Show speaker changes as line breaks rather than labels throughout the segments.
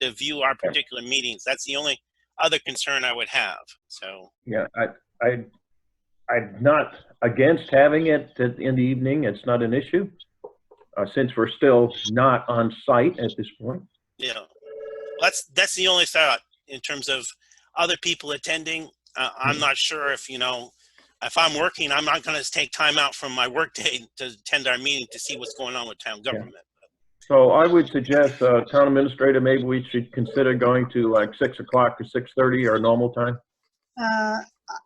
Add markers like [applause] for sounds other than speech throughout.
to view our particular meetings. That's the only other concern I would have, so.
Yeah, I, I, I'm not against having it at- in the evening, it's not an issue, uh, since we're still not on site at this point.
Yeah, that's that's the only thought in terms of other people attending. Uh, I'm not sure if you know if I'm working, I'm not going to take time out from my [laughs] workday to attend our meeting to see what's going on with town government.
So I would suggest, uh, town administrator, maybe we should consider going to like six o'clock or six thirty or normal time.
Uh,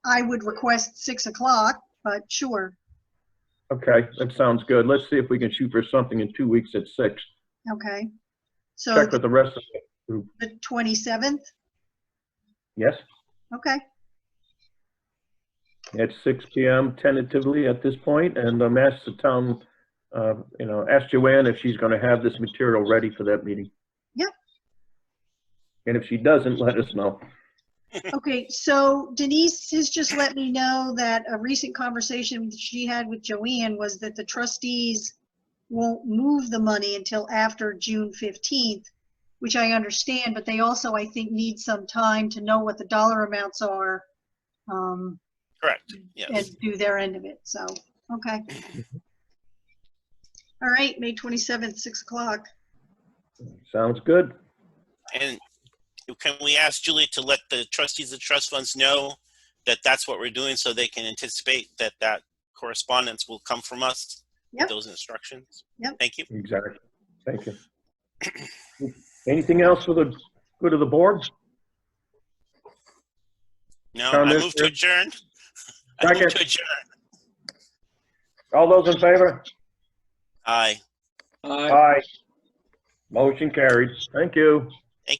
I would request 6 o'clock, but sure,
Okay, that sounds good. Let's see if we can shoot for something in two weeks at six.
okay. So
Check with the rest of,
the 27th,
yes,
okay,
at six P M tentatively at this point, and um, ask the town, uh, you know, ask Joanne if she's gonna have this material ready for that meeting.
Yep.
And if she doesn't, let us know.
okay. So Denise has just let me know that a recent conversation that she had with Joanne was that the trustees won't move the money until after June 15th, which I understand, but they also, I think, need some time to know what the dollar amounts are um,
Correct. Yes.
and do their end of it, so, okay. All right, May 27th, 6 o'clock.
Sounds good.
And can we ask Julie to let the trustees of trust funds know that that's what we're doing, so they can anticipate that that correspondence will come from us
Yep.
with those instructions.
Yep.
Thank you.
Exactly. Thank you. Anything else for the good of the board?
No,
Town
I move to
administrator?
adjourn. [laughs] I move
Second.
to adjourn.
All those in favor?
Aye.
Aye.
Aye. Motion carried. Thank you.